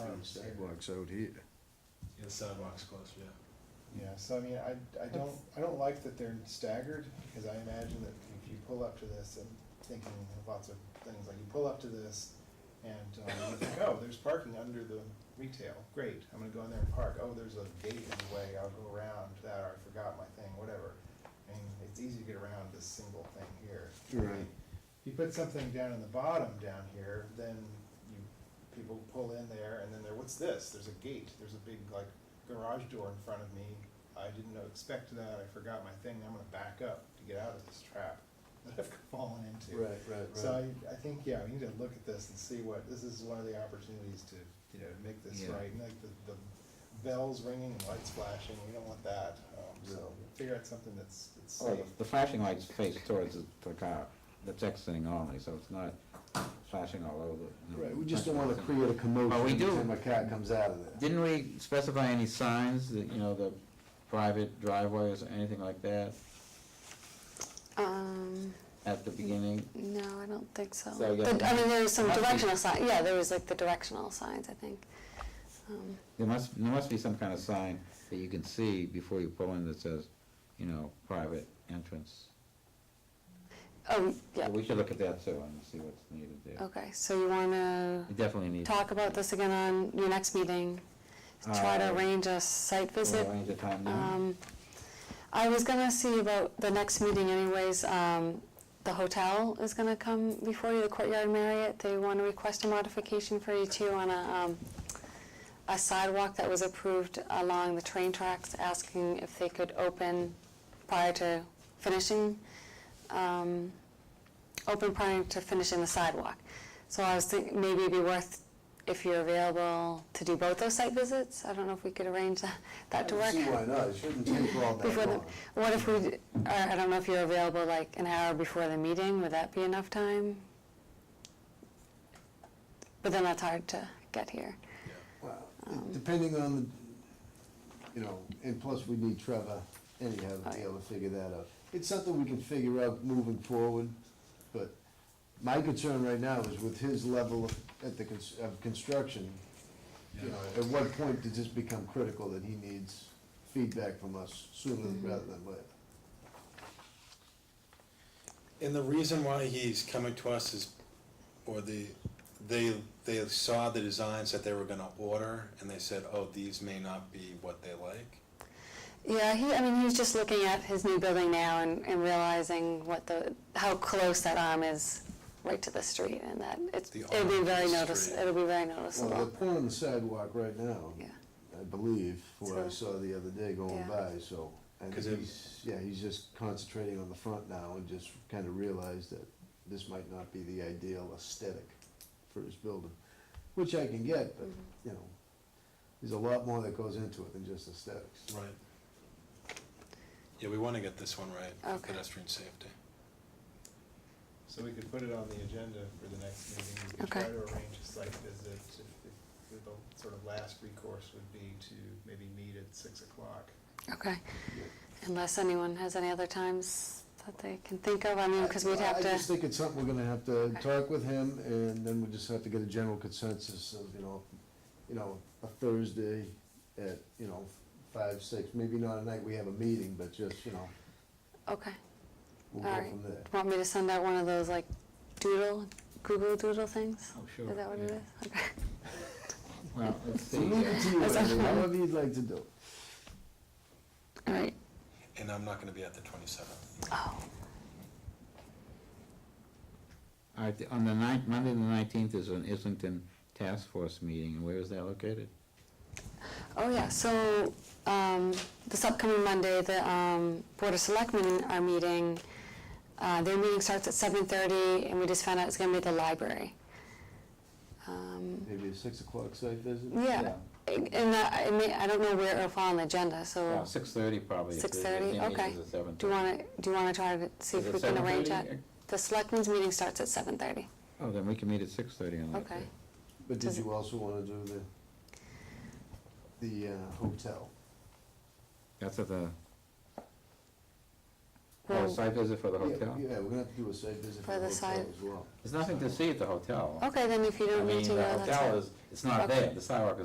Sidewalks there. Sidewalks out here. Yeah, the sidewalks close, yeah. Yeah, so I mean, I, I don't, I don't like that they're staggered, because I imagine that if you pull up to this, and thinking of lots of things, like you pull up to this, and uh, you think, oh, there's parking under the retail, great, I'm gonna go in there and park, oh, there's a gate in the way, I'll go around that, or I forgot my thing, whatever. I mean, it's easy to get around this single thing here. Right. If you put something down in the bottom down here, then you, people pull in there, and then they're, what's this? There's a gate, there's a big, like, garage door in front of me. I didn't know- expect that, I forgot my thing, I'm gonna back up to get out of this trap that I've fallen into. Right, right, right. So I, I think, yeah, we need to look at this and see what, this is one of the opportunities to, you know, make this Yeah. right. And Like the, the bells ringing and lights flashing, we don't want that, um, so figure out something that's, that's Well, safe. the flashing light's faced towards the- the car, that's exiting only, so it's not flashing all over. you know. Right, we just don't want to create a commotion Well, we every do. time a cat comes out of there. Didn't we specify any signs, that you know, the private driveways or anything like that Um, at the beginning? no, I don't think so. So, yeah. But, I mean, there was some Must be- directional sign, yeah, there was like the directional signs, I think. Um, There must, there must be some kind of sign that you can see before you pull in that says, you know, private entrance. Oh, So yeah, We should look at that too and see what's needed there. okay, so you wanna We definitely need. talk about this again on your next meeting? Try to Uh, arrange a site visit? Arrange a time now. Um, I was gonna see about the next meeting anyways, um, the hotel is gonna come before you, the Courtyard Marriott. They wanna request a modification for you too on a, um, a sidewalk that was approved along the train tracks, asking if they could open prior to finishing, um, open prior to finishing the sidewalk. So I was thinking, maybe it'd be worth, if you're available, to do both those site visits. I don't know if we could arrange that, that to I work. don't See why not, it shouldn't take all that Before the, long. what if we, d- or I don't know if you're available like an hour before the meeting, would that be enough time? But then that's hard to get here. Well, Um. Depending on, the, you know, and plus we need Trevor anyhow to Oh, be yeah. able to figure that out. It's something we can figure out moving forward, but my concern right now is with his level of- at the, cons- of construction, you know, at what point does this become critical that he needs feedback from us sooner rather than later? And the reason why he's coming to us is, or the, they, they saw the designs that they were gonna order, and they said, oh, these may not be what they like. Yeah, he, I mean, he's just looking at his new building now and, and realizing what the, how close that arm is right to the street and that it's, The it'll be arm very of the notice, street. it'll be very Well, noticeable. they're pouring the sidewalk right now. Yeah. I believe, what I So- saw the other day going Yeah. by, so. I think 'Cause it- he's, yeah, he's just concentrating on the front now and just kind of realized that this might not be the ideal aesthetic for his building, which I can get, but, Mm-hmm. you know, there's a lot more that goes into it than just aesthetics. Right. Yeah, we wanna get this one right, for Okay. pedestrian safety. So we could put it on the agenda for the next meeting. We could Okay. Try to arrange a site visit. If- if- if The sort of last recourse would be to maybe meet at six o'clock. Okay, unless anyone has any other times that they can think of, I mean, because Mm, we'd Uh, I- have I just to, think it's something we're gonna have to Okay. talk with him, and then we just have to get a general consensus of, you know, you know, a Thursday at, you know, five, six, maybe not a night we have a meeting, but just, you know, okay. we'll All go right. from there. Want me to send out one of those like doodle, Google doodle things? Oh, sure. Is that what it yeah. is? Okay. Well, let's So leave it to see. you, Andy, however you'd like to do. it. All right. And I'm not gonna be at the twenty-seventh. Oh, All right, on the ninth, Monday the nineteenth is an Islington Task Force meeting, and where is that located? oh yeah, so, um, this upcoming Monday, the, um, Board of Selectmen are meeting. Uh, their meeting starts at seven thirty and we just found out it's gonna be at the library. Um, Maybe a six o'clock site visit? yeah, and that, I mean, I don't know where it'll fall on the agenda, so, Uh, Six thirty probably. if it- 6:30? if it Okay. is at 7:30. do you wanna, do you wanna try to see Is if it we can arrange 7:30? that? The Selectmen's meeting starts at seven thirty. Oh, then we can meet at six thirty on that Okay. day. But did Does it- you also wanna do the, the uh, hotel? That's at the, oh, Well- site visit for the Yeah, hotel? Yeah, we're gonna have to do a site visit For for the the hotel site- as well. There's nothing to see at the hotel. Okay, then if you I don't mean, need to go, the that's hotel fine. is, it's not Okay. there, the sidewalk is